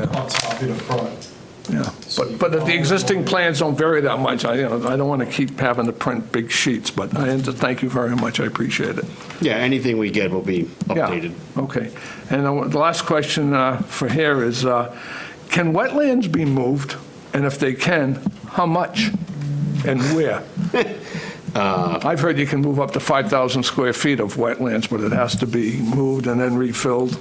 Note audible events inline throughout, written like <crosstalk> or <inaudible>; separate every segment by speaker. Speaker 1: on top in the front.
Speaker 2: Yeah, but, but if the existing plans don't vary that much, I, you know, I don't want to keep having to print big sheets, but I, and thank you very much, I appreciate it.
Speaker 3: Yeah, anything we get will be
Speaker 2: Yeah,
Speaker 3: updated.
Speaker 2: Okay, and the the last question uh, for here is, uh, can wetlands be moved? And if they can, how much and where? I've heard you can move up to 5,000 square feet of wetlands, but it has to be moved and then refilled.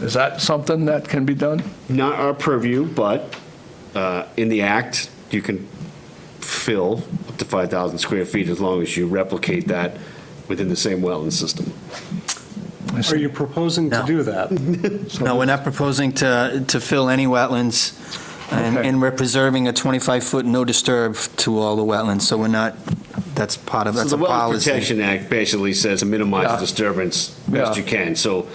Speaker 2: Is that something that can be done?
Speaker 3: Not our purview, but uh, in the act, you can fill up to 5,000 square feet as long as you replicate that within the same wetland system.
Speaker 4: Are you proposing to
Speaker 5: No.
Speaker 4: do that?
Speaker 5: No, we're not proposing to, to fill any wetlands, and,
Speaker 2: Okay.
Speaker 5: and we're preserving a 25-foot no disturb to all the wetlands, so we're not, that's part of,
Speaker 3: So
Speaker 5: that's
Speaker 3: the
Speaker 5: a
Speaker 3: Wetland
Speaker 5: policy.
Speaker 3: Protection Act basically says to
Speaker 2: Yeah.
Speaker 3: minimize disturbance
Speaker 2: Yeah.
Speaker 3: best you can. So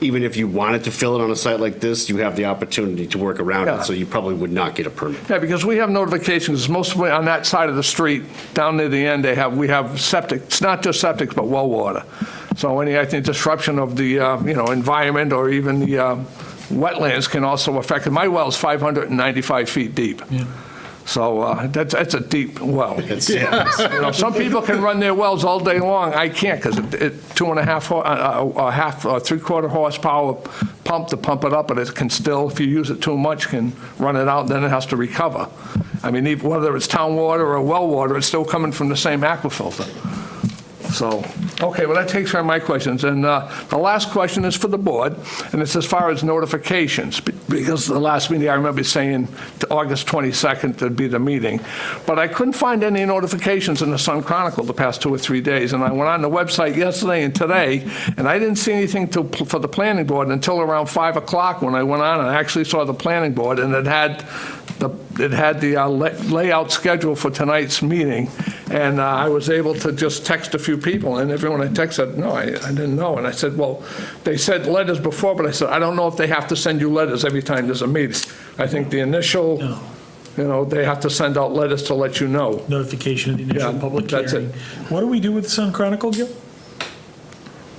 Speaker 3: even if you wanted to fill it on a site like this, you have the opportunity to work around
Speaker 2: Yeah.
Speaker 3: it, so you probably would not get a permit.
Speaker 2: Yeah, because we have notifications, mostly on that side of the street, down near the end, they have, we have septic, it's not just septic, but well water. So any, I think, disruption of the, uh, you know, environment or even the uh, wetlands can also affect, my well's 595 feet deep. So uh, that's, that's a deep well.
Speaker 3: That's-
Speaker 2: You know, some people can run their wells all day long. I can't because it, it two and a half, ho- uh, uh, a half, uh, three quarter horsepower pump to pump it up, and it can still, if you use it too much, can run it out. Then it has to recover. I mean, even, whether it's town water or well water, it's still coming from the same aquifilter. So, okay, well, that takes care of my questions. And uh, the last question is for the board, and it's as far as notifications, be- because the last meeting, I remember saying to August 22nd would be the meeting, but I couldn't find any notifications in the Sun Chronicle the past two or three days, and I went on the website yesterday and today, and I didn't see anything to- for the planning board until around 5 o'clock when I went on and actually saw the planning board, and it had the, it had the uh, la- layout schedule for tonight's meeting, and uh, I was able to just text a few people, and everyone I texted said, no, I I didn't know. And I said, well, they sent letters before, but I said, I don't know if they have to send you letters every time there's a meeting. I think the initial, you know, they have to send out letters to let you know.
Speaker 6: notification of the initial
Speaker 2: Yeah,
Speaker 6: public
Speaker 2: that's it.
Speaker 6: hearing. What do we do with the Sun Chronicle, Gil?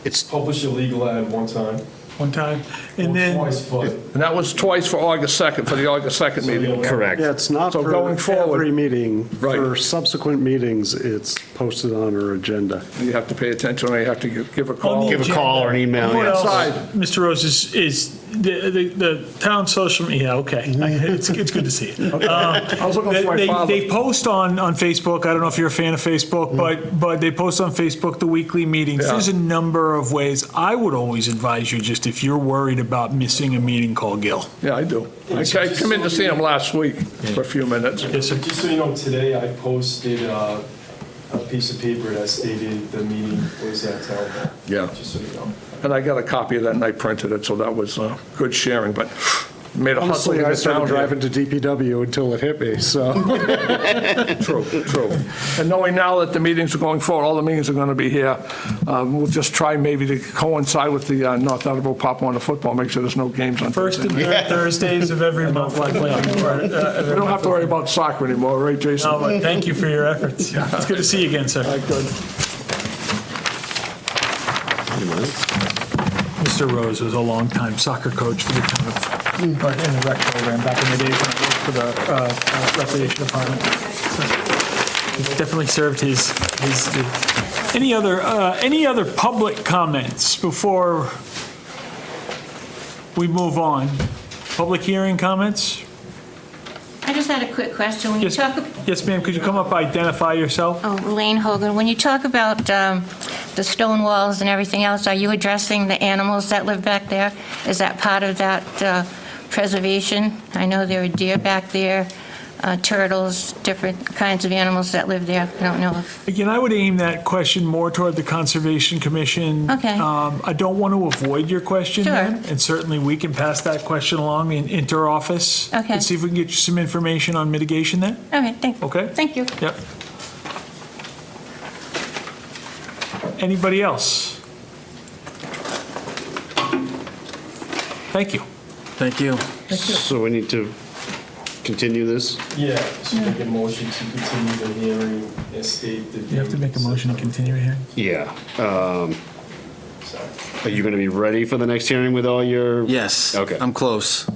Speaker 3: It's,
Speaker 1: Publish a legal ad one time,
Speaker 6: One time,
Speaker 1: or
Speaker 6: and then,
Speaker 1: twice, but.
Speaker 2: And that was twice for August 2nd, for the August 2nd meeting.
Speaker 3: correct.
Speaker 4: Yeah, it's not
Speaker 2: So
Speaker 4: for
Speaker 2: going forward-
Speaker 4: every meeting.
Speaker 2: Right.
Speaker 4: For subsequent meetings, it's posted on our agenda.
Speaker 2: You have to pay attention, or you have to give- give a
Speaker 6: On
Speaker 2: call.
Speaker 6: the
Speaker 3: Give a call or an email.
Speaker 6: what
Speaker 3: yeah.
Speaker 6: else,
Speaker 2: Outside.
Speaker 6: Mr. Rose, is, is the, the, the town social, yeah, okay. It's, it's good to see
Speaker 2: <laughs>
Speaker 6: you.
Speaker 2: Mm-hmm.
Speaker 6: Um,
Speaker 2: I was looking
Speaker 6: They,
Speaker 2: for my
Speaker 6: they-
Speaker 2: father. Mm-hmm.
Speaker 6: they post on, on Facebook, I don't know if you're a fan of Facebook, but, but they post on Facebook the weekly meetings.
Speaker 2: Yeah.
Speaker 6: There's a number of ways. I would always advise you, just if you're worried about missing a meeting, call Gil.
Speaker 2: Yeah, I do. I I come in to see him last week for a few minutes.
Speaker 6: Yes, sir.
Speaker 1: Just so you know, today I posted uh, a piece of paper that stated the meeting was at town hall.
Speaker 2: Yeah.
Speaker 1: Just so you know.
Speaker 2: And I got a copy of that and I printed it, so that was uh, good sharing, but made a hustle to
Speaker 4: Honestly, I
Speaker 2: get
Speaker 4: started
Speaker 2: down here.
Speaker 4: driving to DPW until it hit me, so.
Speaker 2: True, true. And knowing now that the meetings are going forward, all the meetings are going to be here, um, we'll just try maybe to coincide with the uh, North Attleboro Pop Warner football, make sure there's no games on
Speaker 6: First
Speaker 2: Thursday.
Speaker 6: and third Thursdays of <laughs> every month, likely. uh,
Speaker 2: We don't have to worry about soccer anymore, right, Jason?
Speaker 6: No, but thank you for your efforts. It's good to see you again, sir. Mr. Rose was a longtime soccer coach for the town of, or in the rec program back in the days when I worked for the uh, uh, recreation department. So he Definitely served his, his, any other, uh, any other public comments before we move on? Public hearing comments?
Speaker 7: I just had a quick question. When you
Speaker 6: Yes,
Speaker 7: talk,
Speaker 6: yes, ma'am, could you come up, identify yourself?
Speaker 7: oh, Elaine Hogan, when you talk about um, the stone walls and everything else, are you addressing the animals that live back there? Is that part of that uh, preservation? I know there are deer back there, uh, turtles, different kinds of animals that live there. I don't know if,
Speaker 6: Again, I would aim that question more toward the Conservation Commission.
Speaker 7: Okay.
Speaker 6: Um, I don't want to avoid your question.
Speaker 7: Sure.
Speaker 6: ma'am, And certainly, we can pass that question along in inter-office.
Speaker 7: Okay.
Speaker 6: And see if we can get you some information on mitigation there.
Speaker 7: okay, thank,
Speaker 6: Okay.
Speaker 7: thank you.
Speaker 6: Yep. Anybody else? Thank you.
Speaker 5: Thank you.
Speaker 3: So we need to continue this?
Speaker 1: Yeah, so make a motion to continue the hearing and state the.
Speaker 6: continue here?
Speaker 3: Yeah.
Speaker 1: continue.
Speaker 3: Are you going to be ready for the next hearing with all your?
Speaker 5: Yes.
Speaker 3: Okay.
Speaker 5: I'm close.